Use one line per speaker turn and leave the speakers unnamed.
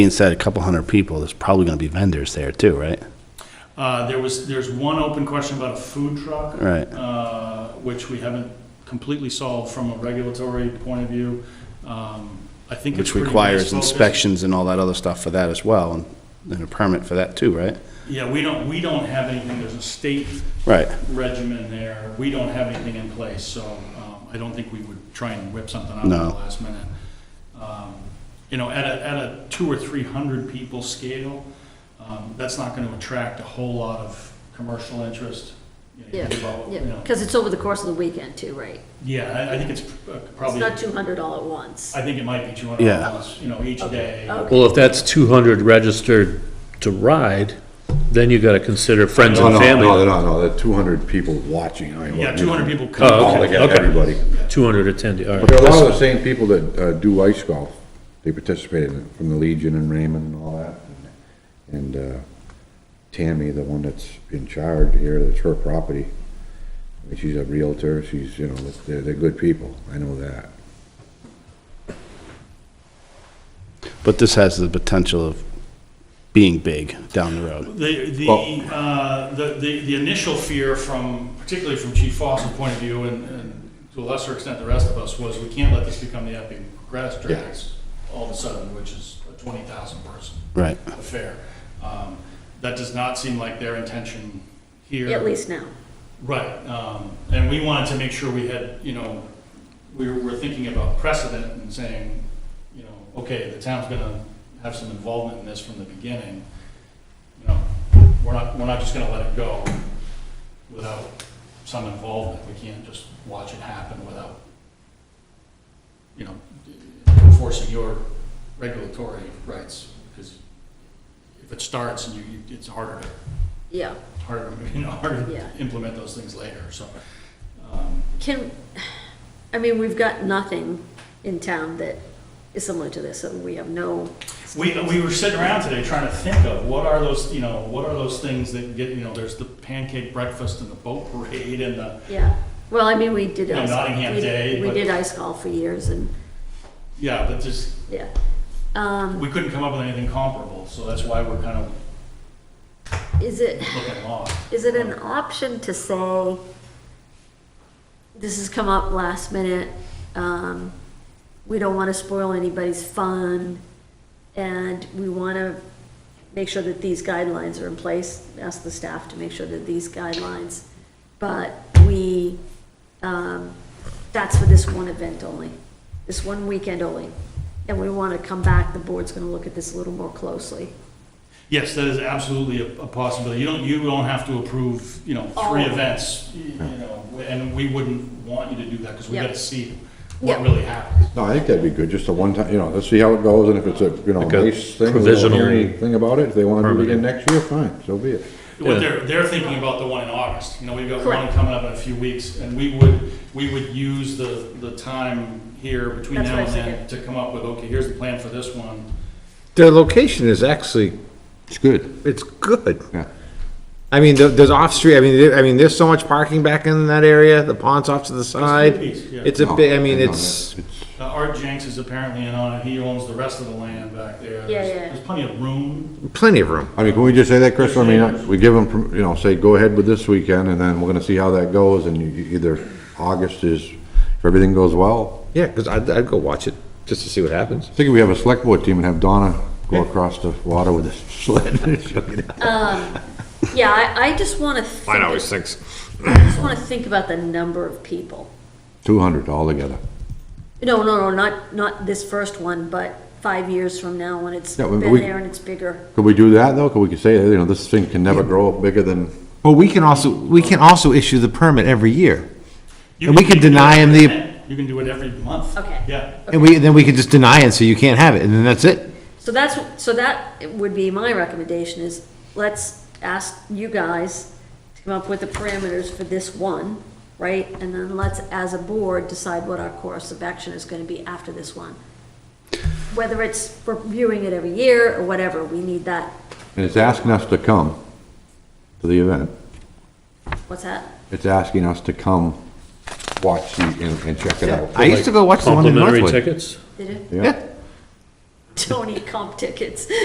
Being said, a couple hundred people, there's probably gonna be vendors there too, right?
Uh, there was, there's one open question about a food truck.
Right.
Uh, which we haven't completely solved from a regulatory point of view. Um, I think it's
Which
pretty
requires
nice focus.
inspections and all that other stuff for that as well, and, and a permit for that too, right?
Yeah, we don't, we don't have anything, there's a state
Right,
regimen there, we don't have anything in place, so, um, I don't think we would try and whip something up at the
No.
last minute. Um, You know, at a, at a two or three hundred people scale, um, that's not gonna attract a whole lot of commercial interest. You know, you
Yeah,
think about what-
yeah,
you know.
because it's over the course of the weekend too, right?
Yeah, I, I think it's uh,
It's
probably,
not
I
two hundred all at once.
think it might be two hundred
Yeah.
dollars, you know, each day.
Okay.
Well, if that's 200 registered to ride, then you got to consider friends
No,
and
Oh, no, No,
family.
no, no, there are 200 people watching. I mean,
Yeah,
what-
two hundred people
Oh,
All
come.
okay.
together, everybody.
200 attendee, all
But there are a lot
right.
of the same people that uh, do ice golf. They participate in it, from the Legion and Raymond and all that. And uh, Tammy, the one that's in charge here, that's her property. I mean, She's a Realtor, she's, you know, they're, they're good people, I know that.
but this has the potential of being big down the road.
The, the,
Well-
uh, the, the the initial fear from, particularly from Chief Fawcett's point of view and, and to a lesser extent the rest of us, was we can't let this become the epic grass drags all of a sudden, which is a twenty thousand person
Right,
affair. Um, That does not seem like their intention here.
At least now.
Right, um, and we wanted to make sure we had, you know, we were, we're thinking about precedent and saying, you know, okay, the town's gonna have some involvement in this from the beginning. You know, we're not, we're not just gonna let it go without some involvement. We can't just watch it happen without, you know, enforcing your regulatory rights. Because if it starts and you, you- it's harder to
Yeah.
harder, you know, harder
Yeah.
to implement those things later, so. um,
Can, I mean, we've got nothing in town that is similar to this, so we have no.
We, we were sitting around today trying to think of, what are those, you know, what are those things that get, you know, there's the pancake breakfast and the boat parade and the,
Yeah. Well, I mean, we did.
Yeah,
ice golf.
Nottingham
We-
Day,
We
but-
did ice golf for years and,
yeah, but just,
yeah. Um,
we couldn't come up with anything comparable, so that's why we're kind of
is it?
looking lost.
Is it an option to say, this has come up last minute, um, we don't wanna spoil anybody's fun, and we wanna make sure that these guidelines are in place, ask the staff to make sure that these guidelines, but we, um, that's for this one event only, this one weekend only, and we wanna come back, the board's gonna look at this a little more closely.
Yes, that is absolutely a, a possibility. You don't, you don't have to approve, you know, three
All of
events, y- you know, and we wouldn't want you to do that because we
Yeah.
gotta see what
Yeah.
really happens.
No, I think that'd be good, just a one time, you know, let's see how it goes, and if it's a, you know,
Like a
nice thing, we don't
provisional
hear anything about it, if they wanna do it
permit.
again next year, fine, so be it.
What
Yeah.
they're, they're thinking about the one in August, you know, we've got one
Correct.
coming up in a few weeks, and we would, we would use the, the time here between
That's
now
what I
and
was
then to come up with, okay, here's the plan for this one.
The location is actually,
It's good.
it's good.
Yeah.
I mean, there- there's off-street, I mean, there- I mean, there's so much parking back in that area, the pond's off to the side.
piece, yeah.
It's a big, Oh, I mean, it's,
Uh, Art Jenks is apparently in on it, he owns the rest of the land back there.
Yeah,
There's-
yeah.
There's plenty of room.
plenty of room.
I mean, can we just say that, Chris? I mean, we give them, you know, say, go ahead with this weekend, and then we're gonna see how that goes, and you- you either August is, if everything goes well.
Yeah, because I'd, I'd go watch it, just to see what happens.
I think we have a select board team and have Donna go across the water with a sled.
Yeah, I, I just wanna think.
thinks.
I just want to think about the number of people.
Two hundred altogether.
No, no, no, not, not this first one, but five years from now when it's
Yeah, we-
been
we-
there and it's bigger.
Could we do that, though? Could we could say, you know, this thing can never grow bigger than,
Well, we can also, we can also issue the permit every year.
You
And we could
you do
deny
it
him
every
the-
event. You can do it every month.
Okay.
Yeah,
And we, then we could just deny it, so you can't have it, and then that's it.
So that's, so that would be my recommendation is, let's ask you guys to come up with the parameters for this one, right? And then let's, as a board, decide what our course of action is going to be after this one. Whether it's reviewing it every year or whatever, we need that,
and it's asking us to come to the event.
what's that?
It's asking us to come watch the, and, and check it out.
I used to go watch the one in
Complimentary
Northwood.
tickets?
Did it?
Yeah.
Tony comp tickets.